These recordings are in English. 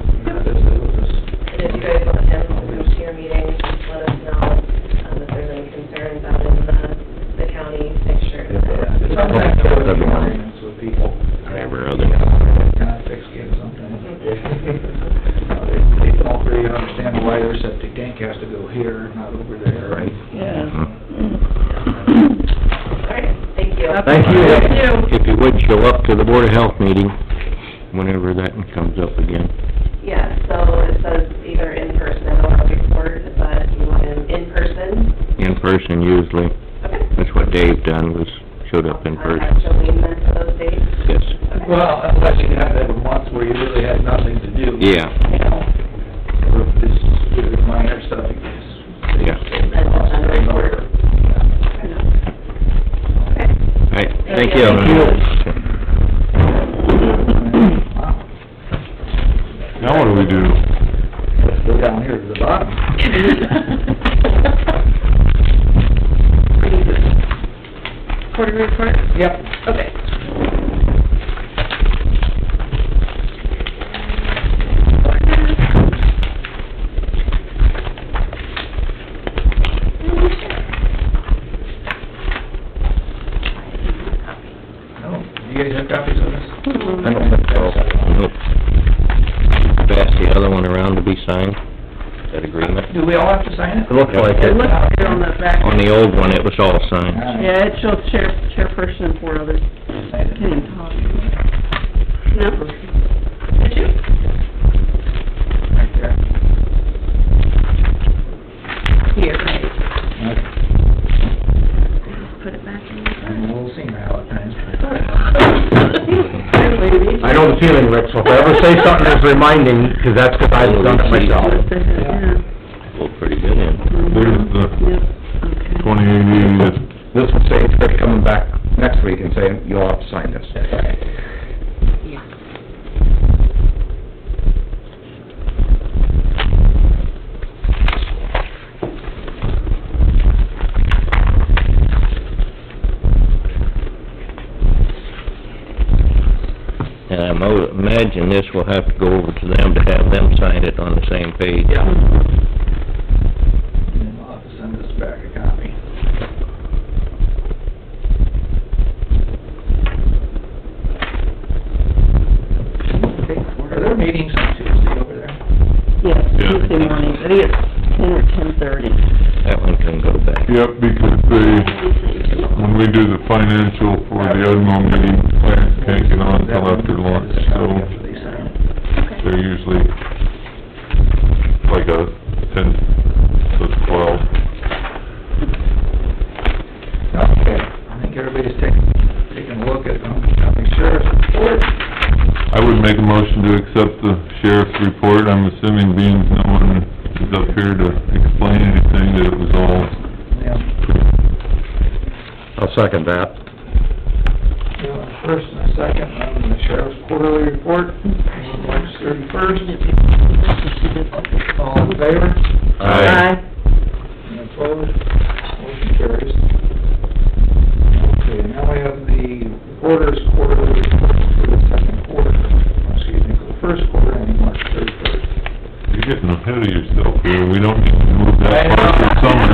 um, understand why their septic tank has to go here, not over there, right? Uh-huh. Yeah. Thank you. Thank you. Thank you. If you would, show up to the Board of Health meeting, whenever that comes up again. Yeah, so it says either in person and on record, but you want an in person? In person usually, Okay. that's what Dave done, was showed up in Contact person. Jolene then for those dates. Yes, Okay. Well, unless you have that month where you really had nothing to do. yeah, Or if this, if it's minor stuff, it gets. Yeah. That's just under record. Okay. all right, thank you. Thank Wow. Now what do we do? Let's go down here to the bottom. Quarter report? Yep. Okay. No, do Oh, you guys have copies of this? I don't think so. Nope. Pass the other one around to be signed, that agreement. Do we all have to sign it? It looks like It it. looks good on the back. On the old one, it was all signed. All right. Yeah, it shows chair, chairperson and four others. Sign it. Didn't talk. No? Did you? Right there. Here. Okay. Put it back in. I'm a little senior how it times. Hi, lady. I know the feeling, Rick, so if I ever say something, just remind him, 'cause that's 'cause I've done it myself. Yeah. Looked pretty good in. There's the Yep, okay. twenty eighty, that's This will say, Rick coming back next week and saying, you'll have to sign this. And I mo- imagine this will have to go over to them to have them sign it on the same page. Yeah. And then I'll have to send this back a copy. Are there meetings on Tuesday over there? Yes, Yeah. Tuesday morning, I think it's ten or ten thirty. That one can go back. Yep, because they, when we do the financial for the Osmo meeting, plans can't get on till after lunch, After so they sign it. they're usually like a ten to twelve. Okay, I think everybody's taking, taking a look at, um, county sheriff's report. I would make a motion to accept the sheriff's report, I'm assuming being no one is up here to explain anything, that it was all, Yeah. I'll second that. We have a first and a second on the sheriff's quarterly report, on March thirty-first. All in favor? Any opposed? Motion carries. Okay, now we have the reporter's quarterly report for the second quarter, excuse me, for the first quarter ending March thirty-first. you're getting ahead of yourself here, we don't need to move that far for summer.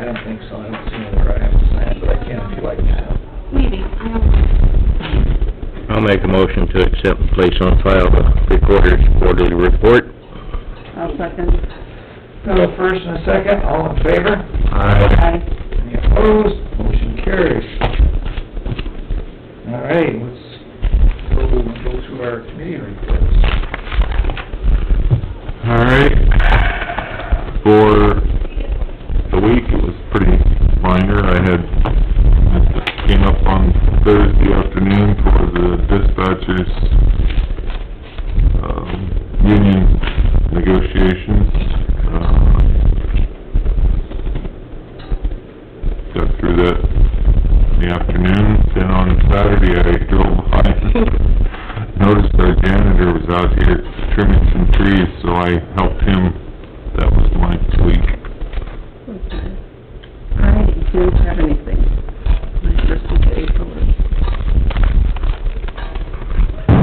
I don't think so, I don't see where I have to sign, it, but I can if you like me to. Maybe, I don't, I'll make a motion to accept and place on file the recorder's quarterly report. I'll second. We have a first and a second, all in favor? Aye. Any opposed? Motion carries. All right, let's go, go through our committee reports. All right, for the week, it was pretty minor, I had, this came up on Thursday afternoon for the dispatchers, um, union negotiations. Uh, Got through that in the afternoon, then on Saturday, I drove by noticed our janitor was out here trimming some trees, so I helped him. That was my week. I didn't have any